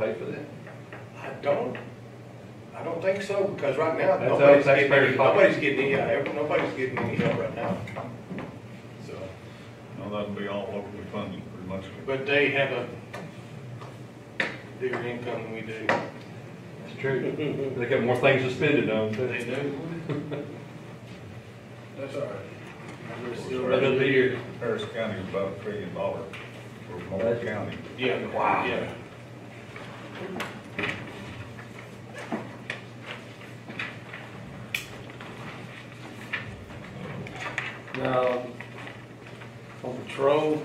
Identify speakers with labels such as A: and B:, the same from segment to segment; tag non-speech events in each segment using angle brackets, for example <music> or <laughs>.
A: pay for that?
B: I don't, I don't think so, because right now,
A: That's out of
B: nobody's getting,
A: taxpayers'
B: any-
A: pocket.
B: nobody's getting any, uh, nobody's getting any help right now. So,
C: Now, that'd be all locally funded, pretty much.
B: but they have a bigger income than we do.
A: It's true. They got more things to spend it on,
B: They
A: too.
B: do. <laughs> That's all right. We're still
A: Right up
B: ready.
A: here.
C: Harris County is about a trillion dollar for Moore County.
B: Yeah.
A: Wow.
B: Yeah.
D: Now, on patrol.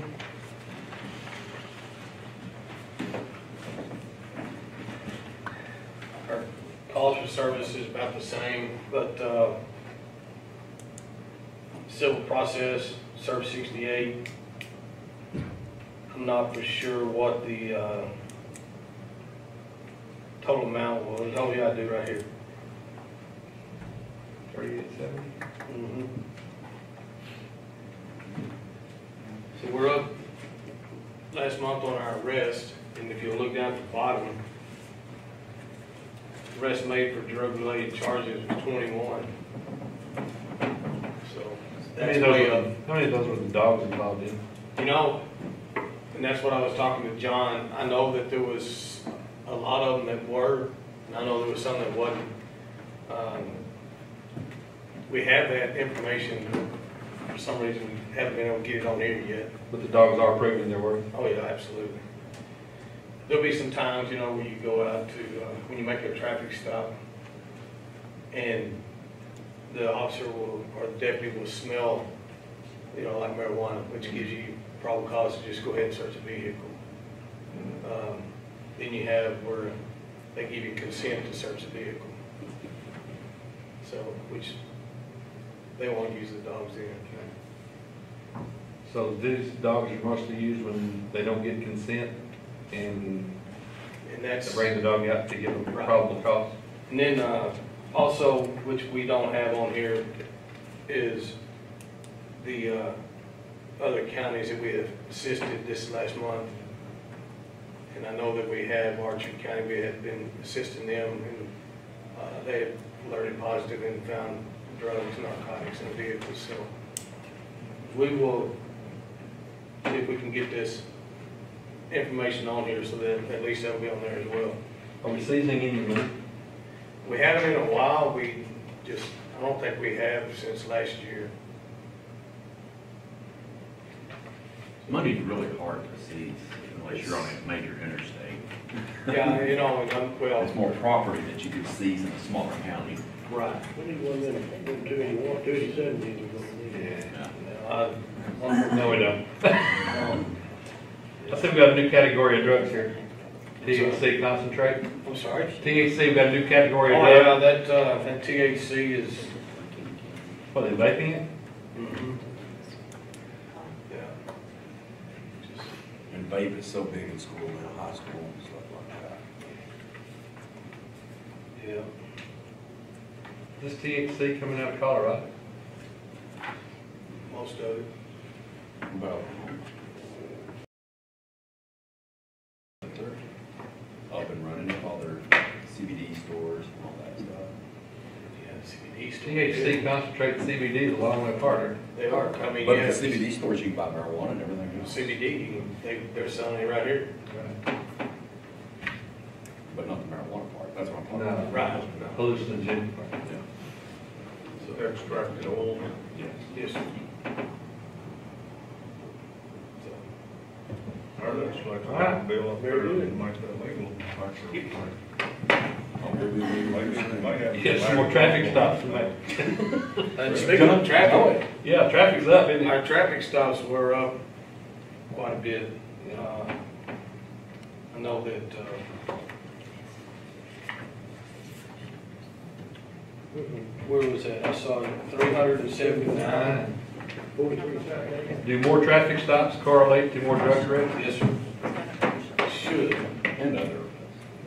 B: Our calls for service is about the same, but, uh, civil process, service sixty-eight. I'm not for sure what the, uh, total amount was. Oh, yeah, I do right here.
A: Thirty-eight seventy?
B: Mhm. So we're up last month on our arrest, and if you look down at the bottom, arrest made for drug-related charges was twenty-one. So
A: How
B: that's
A: many of those
B: way up.
A: were, how many of those were the dogs involved in?
B: You know, and that's what I was talking to John, I know that there was a lot of them that were, and I know there was some that wasn't. Um, We have that information, for some reason, we haven't been able to get it on here yet.
A: But the dogs are proven there were.
B: Oh, yeah, absolutely. There'll be some times, you know, where you go out to, uh, when you make a traffic stop, and the officer will, or the deputy will smell, you know, like marijuana, which gives you probable cause to just go ahead and search a vehicle. Um, Then you have where they give you consent to search a vehicle. So, which, they won't use the dogs then.
A: So these dogs are mostly used when they don't get consent and
B: And
A: they
B: that's.
A: bring the dog out to give them
B: Right.
A: probable cause.
B: And then, uh, also, which we don't have on here, is the, uh, other counties that we have assisted this last month. And I know that we have, Archer County, we have been assisting them, and, uh, they have alerted positive and found drugs, narcotics in vehicles, so. We will, see if we can get this information on here, so that at least that'll be on there as well.
A: Are we seizing any money?
B: We haven't in a while, we just, I don't think we have since last year.
E: Money's really hard to seize unless you're on a major interstate.
B: Yeah, <laughs> you know, and I'm, well,
E: It's more property that you could seize in a smaller county.
B: right.
D: We need one minute, one duty, one duty, seven duty, we're gonna need.
B: Uh,
A: No, we don't. <laughs> I think we got a new category of drugs here. THC concentrate.
B: I'm sorry.
A: THC, we got a new category of
B: Oh,
A: drugs.
B: yeah, that, uh, that THC is,
A: What, they vaping it?
B: mhm. yeah. Just-
F: And vape is so big in school, in high school and stuff like that.
B: Yeah,
A: This THC coming out of Colorado?
B: most of it.
F: About
E: Up and running with all their CBD stores and all that stuff.
B: Yeah, CBD still.
A: THC concentrate CBD is a long way apart.
B: They are, I mean,
E: But
B: yeah,
E: at the CBD stores, you can buy marijuana and everything else,
B: CBD, you can- they, they're selling it right here.
E: but not the marijuana part. That's what I'm talking
A: No.
E: about.
B: Right.
A: Hallucinogen.
C: Extracted oil.
E: Yes.
B: Yes. So,
C: Or that's like
A: All right.
C: a bill up there, to make that legal. Make sure-
E: Oh,
C: Maybe we might have to-
A: Yes, more traffic stops to make.
B: And speaking of traffic,
A: Yeah, traffic's up, isn't it?
B: Our traffic stops were up quite a bit. Uh, I know that, uh, where was that? I saw three hundred and seventy-nine.
D: Forty-three, seven,
A: Do more traffic stops correlate to more drug arrests?
B: Yes, sir. Should.
E: And other.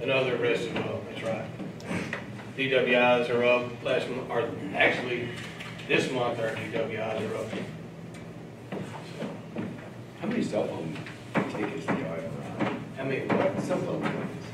B: Another arrest as well, that's right. DWIs are up last month, or actually, this month our DWIs are up. So,
E: How many cell phone tickets do you have around?
B: I mean,
E: Cell phone tickets.